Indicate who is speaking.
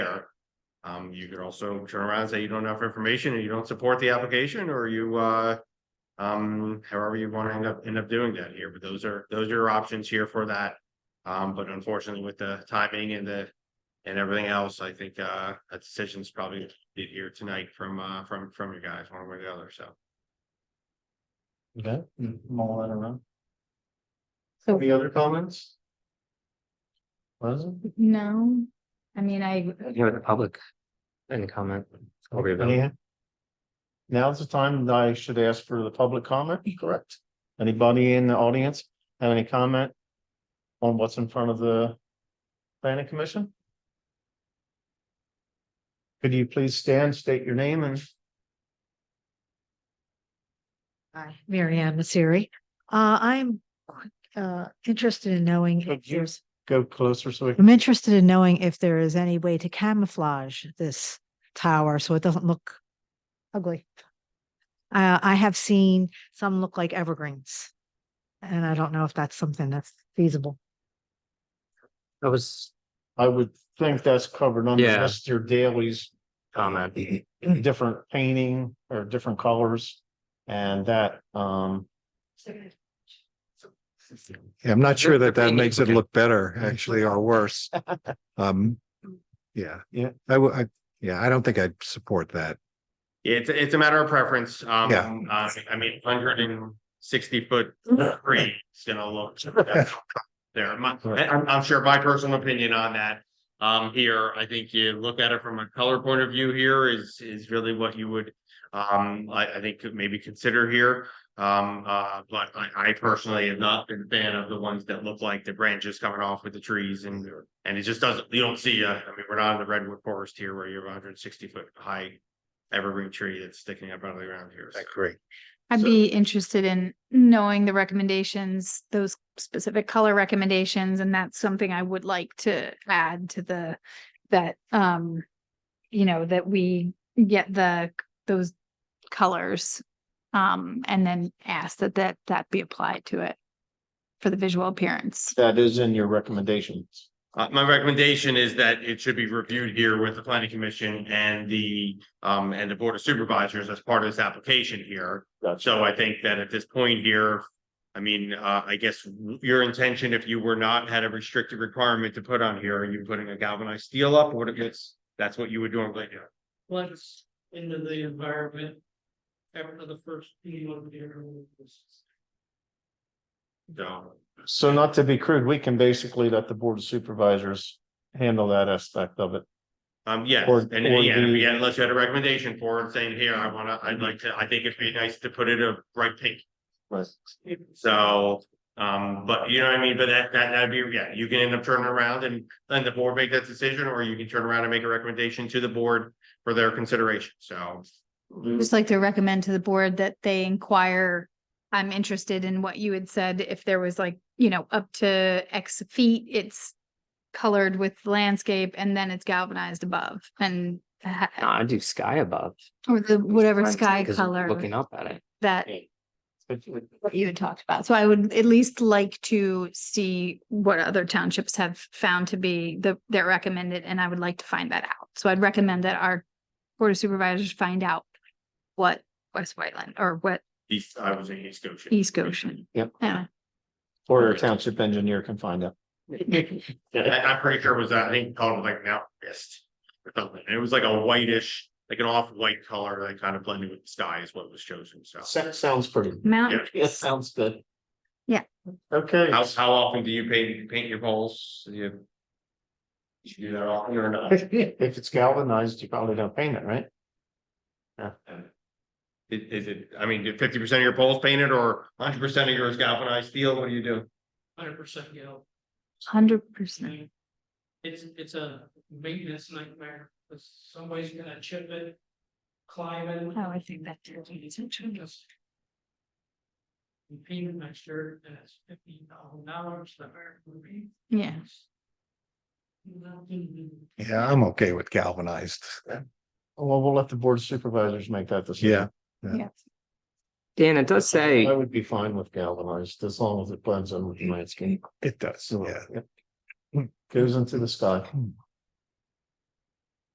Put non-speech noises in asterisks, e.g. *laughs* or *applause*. Speaker 1: Um, you could also turn around and say you don't have information and you don't support the application or you, uh. Um, however you want to end up, end up doing that here, but those are, those are your options here for that. Um, but unfortunately with the timing and the, and everything else, I think, uh, a decision's probably be here tonight from, uh, from, from you guys, one way or the other, so.
Speaker 2: Okay, mm, mull that around.
Speaker 3: So-
Speaker 2: Any other comments? Wasn't?
Speaker 3: No, I mean, I,
Speaker 4: Here with the public. Any comment? I'll read them.
Speaker 2: Yeah. Now's the time that I should ask for the public comment, correct? Anybody in the audience have any comment? On what's in front of the planning commission? Could you please stand, state your name and
Speaker 5: Hi, Mary Ann Maseri. Uh, I'm uh, interested in knowing
Speaker 2: Could
Speaker 5: if
Speaker 2: you-
Speaker 5: there's,
Speaker 2: go closer so we can,
Speaker 5: I'm interested in knowing if there is any way to camouflage this tower so it doesn't look ugly. Uh, I have seen some look like evergreens. And I don't know if that's something that's feasible.
Speaker 4: That was
Speaker 2: I would think that's covered under
Speaker 4: Yeah.
Speaker 2: just your dailies.
Speaker 4: comment.
Speaker 2: different painting or different colors and that, um.
Speaker 6: Yeah, I'm not sure
Speaker 4: They're-
Speaker 6: that
Speaker 4: they're
Speaker 6: that
Speaker 4: painting
Speaker 6: makes it
Speaker 4: for-
Speaker 6: look better, actually, or worse. Um, yeah.
Speaker 2: Yeah.
Speaker 6: I would, I, yeah, I don't think I'd support that.
Speaker 1: It's, it's a matter of preference, um,
Speaker 6: Yeah.
Speaker 1: uh, I mean, hundred and sixty foot tree is gonna look. *laughs* There, my, I- I'm, I'm sure my personal opinion on that, um, here, I think you look at it from a color point of view here is, is really what you would. Um, I, I think could maybe consider here, um, uh, but I, I personally have not been a fan of the ones that look like the branches coming off with the trees and. And it just doesn't, you don't see, uh, I mean, we're not in the redwood forest here where you have hundred and sixty foot high evergreen tree that's sticking up out of the ground here. so.
Speaker 6: agree.
Speaker 3: I'd
Speaker 1: So-
Speaker 3: be interested in knowing the recommendations, those specific color recommendations, and that's something I would like to add to the, that, um, you know, that we get the, those colors, um, and then ask that, that, that be applied to it for the visual appearance.
Speaker 2: That is in your recommendations.
Speaker 1: Uh, my recommendation is that it should be reviewed here with the planning commission and the, um, and the board of supervisors as part of this application here. So I think that at this point here, I mean, uh, I guess your intention, if you were not had a restricted requirement to put on here, are you putting a galvanized steel up or it's, that's what you would normally do?
Speaker 7: once into the environment. After the first meeting of the year.
Speaker 1: So.
Speaker 2: So not to be crude, we can basically let the board of supervisors handle that aspect of it.
Speaker 1: Um, yes,
Speaker 2: Or-
Speaker 1: and,
Speaker 2: or
Speaker 1: and yeah,
Speaker 2: the-
Speaker 1: yeah, unless you had a recommendation for it, saying, here, I wanna, I'd like to, I think it'd be nice to put it a bright pink.
Speaker 2: Right.
Speaker 1: So, um, but you know what I mean, but that, that, that'd be, yeah, you can end up turning around and then the board make that decision, or you can turn around and make a recommendation to the board for their consideration, so.
Speaker 3: Just like to recommend to the board that they inquire. I'm interested in what you had said, if there was like, you know, up to X feet, it's colored with landscape and then it's galvanized above and ha-
Speaker 4: No, I do sky above.
Speaker 3: or the whatever
Speaker 4: Right,
Speaker 3: sky
Speaker 4: 'cause you're Looking
Speaker 3: color
Speaker 4: up at it.
Speaker 3: that
Speaker 4: But you would-
Speaker 3: you had talked about. So I would at least like to see what other townships have found to be the, their recommended, and I would like to find that out. So I'd recommend that our board of supervisors find out what West Whiteland or what
Speaker 1: East, I was in East Goshen.
Speaker 3: East Goshen.
Speaker 4: Yep.
Speaker 3: Yeah.
Speaker 2: Or a township engineer can find out.
Speaker 1: I, I'm pretty sure it was, I think, called like Mount Mist. or something. And it was like a whitish, like an off-white color that kind of blended with the sky is what was chosen, so.
Speaker 2: Sounds, sounds pretty.
Speaker 3: Mount,
Speaker 2: Yeah, sounds good.
Speaker 3: Mm-hmm.
Speaker 2: *laughs*
Speaker 3: Yeah.
Speaker 2: Okay.
Speaker 1: How, how often do you paint, paint your poles? Do You you should do that often or not? It,
Speaker 2: *laughs* If it's galvanized, you probably don't paint it, right?
Speaker 1: is it, I mean, do fifty percent of your poles painted or hundred percent of yours galvanized steel? What do you do?
Speaker 7: Hundred percent go.
Speaker 3: hundred percent.
Speaker 7: It's, it's a maintenance nightmare, 'cause somebody's gonna chip it, climb it.
Speaker 3: Oh, I think that
Speaker 7: It's- it's a tremendous- You pay the next year, and it's fifteen thousand dollars, the hard would be.
Speaker 3: Yeah.
Speaker 6: Yeah, I'm okay with galvanized.
Speaker 2: Well, we'll let the board of supervisors make that
Speaker 6: Yeah.
Speaker 2: decision.
Speaker 6: Yeah.
Speaker 3: Yes.
Speaker 4: Dan, it does say,
Speaker 2: I would be fine with galvanized as long as it blends in with the landscape.
Speaker 6: It does,
Speaker 2: So, yep. Goes into the sky.